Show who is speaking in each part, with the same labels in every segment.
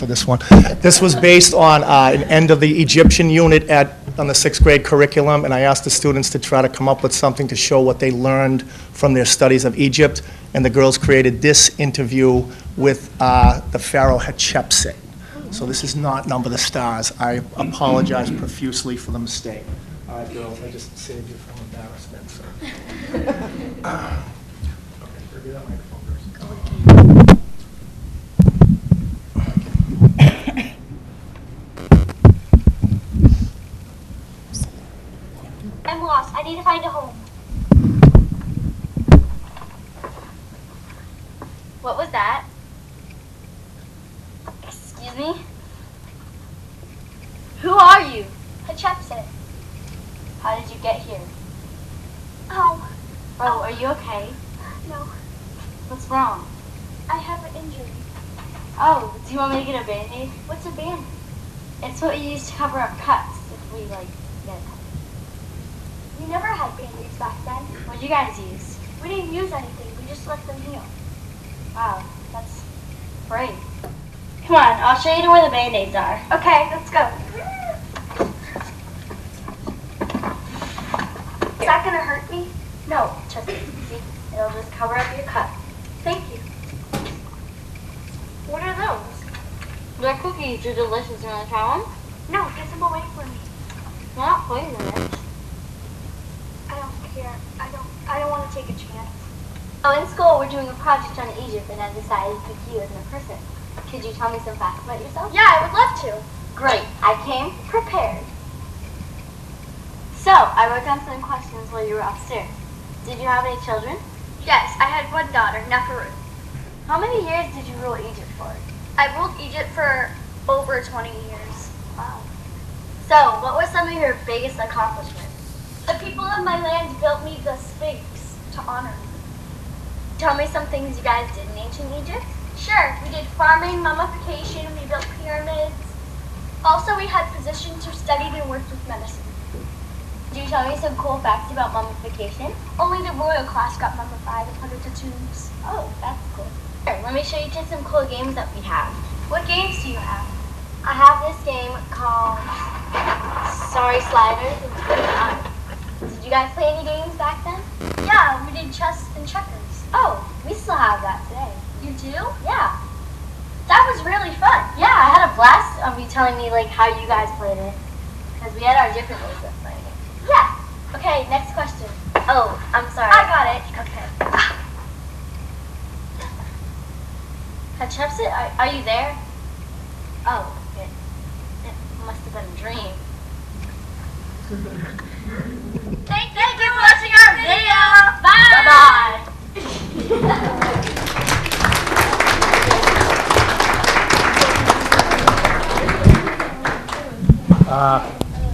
Speaker 1: for this one. This was based on uh, an end of the Egyptian unit at, on the sixth grade curriculum, and I asked the students to try to come up with something to show what they learned from their studies of Egypt, and the girls created this interview with uh, the pharaoh Hatshepsut. So this is not Number the Stars. I apologize profusely for the mistake. All right, girls, I just saved you from embarrassment, so. Okay, give that microphone first.
Speaker 2: I'm lost. I need to find a home. What was that? Excuse me? Who are you? Hatshepsut. How did you get here? Oh. Oh, are you okay? No. What's wrong? I have an injury. Oh, do you want me to get a band-aid? What's a band? It's what you use to cover up cuts if we, like, get cut. We never had band-aids back then. What did you guys use? We didn't use anything. We just let them heal. Wow, that's brave. Come on, I'll show you where the band-aids are. Okay, let's go. Is that gonna hurt me? No, trust me. See, it'll just cover up your cut. Thank you. What are those?
Speaker 3: Their cookies are delicious. You want to try one?
Speaker 2: No, get them away from me.
Speaker 3: They're not poisonous.
Speaker 2: I don't care. I don't. I don't want to take a chance. Oh, in school we're doing a project on Egypt, and I decided to pick you as my person. Could you tell me some facts about yourself? Yeah, I would love to. Great. I came prepared. So I wrote down some questions while you were upstairs. Did you have any children? Yes, I had one daughter, Neferu. How many years did you rule Egypt for? I ruled Egypt for over 20 years. Wow. So, what were some of your biggest accomplishments? The people of my land built me the Sphinx to honor me. Tell me some things you guys did in ancient Egypt. Sure, we did farming, mummification, we built pyramids. Also, we had physicians who studied and worked with medicine. Do you tell me some cool facts about mummification? Only the royal class got mummified and put into tombs. Oh, that's cool. Here, let me show you just some cool games that we have. What games do you have? I have this game called Sorry Sliders. It's pretty fun. Did you guys play any games back then? Yeah, we did chess and checkers. Oh, we still have that today. You do? Yeah. That was really fun.
Speaker 3: Yeah, I had a blast of you telling me like how you guys played it, because we had our different ways of playing it.
Speaker 2: Yeah. Okay, next question.
Speaker 3: Oh, I'm sorry.
Speaker 2: I got it. Okay.
Speaker 3: Hatshepsut, are, are you there? Oh, it, it must have been a dream.
Speaker 2: Thank, you for watching our video. Bye.
Speaker 3: Bye bye.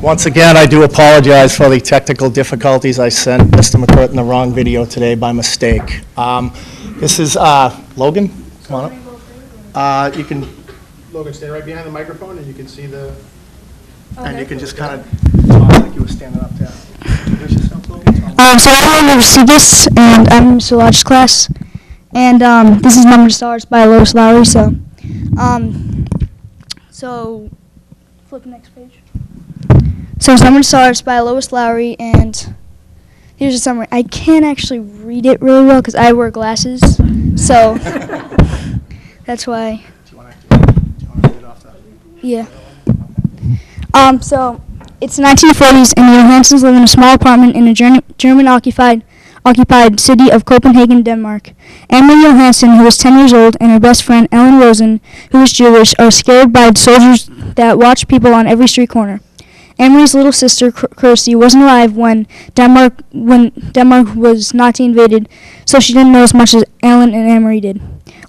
Speaker 1: Once again, I do apologize for the technical difficulties. I sent Mr. McCurtain the wrong video today by mistake. Um, This is uh, Logan, come on up. Uh, You can,
Speaker 4: Logan, stay right behind the microphone, and you can see the,
Speaker 1: and you can just kind of talk like you were standing up there. Introduce yourself, Logan. Tell 'em-
Speaker 5: Um, so I'm Logan Vesuvius, and I'm in Solar's class. And um, this is Number of Stars by Lois Lowry. So, um, so flip the next page. So it's Number of Stars by Lois Lowry, and here's a summary. I can't actually read it really well because I wear glasses, so that's why.
Speaker 1: Do you want to, do you want to read it off the?
Speaker 5: Yeah. Um, so it's 1940s, and the Johansons live in a small apartment in a Ger- German-occupied occupied city of Copenhagen, Denmark. Emily Johansen, who is 10 years old, and her best friend Ellen Rosen, who is Jewish, are scared by soldiers that watch people on every street corner. Emery's little sister Cr- Kirsty wasn't alive when Denmark when Denmark was Nazi invaded, so she didn't know as much as Ellen and Emery did.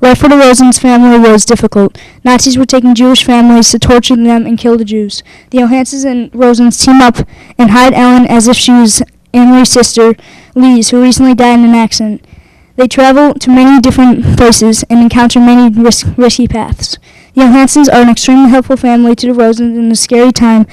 Speaker 5: Life for the Rosen's family was difficult. Nazis were taking Jewish families to torture them and kill the Jews. The Johansons and Rosens team up and hide Ellen as if she was Emery's sister, Lise, who recently died in an accident. They travel to many different places and encounter many risk, risky paths. The Johansons are an extremely helpful family to the Rosens in a scary time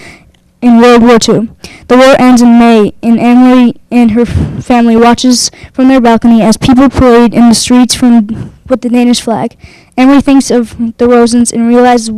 Speaker 5: in World War II. The war ends in May, and Emily and her f- family watches from their balcony as people parade in the streets from with the Danish flag. Emily thinks of the Rosens and realizes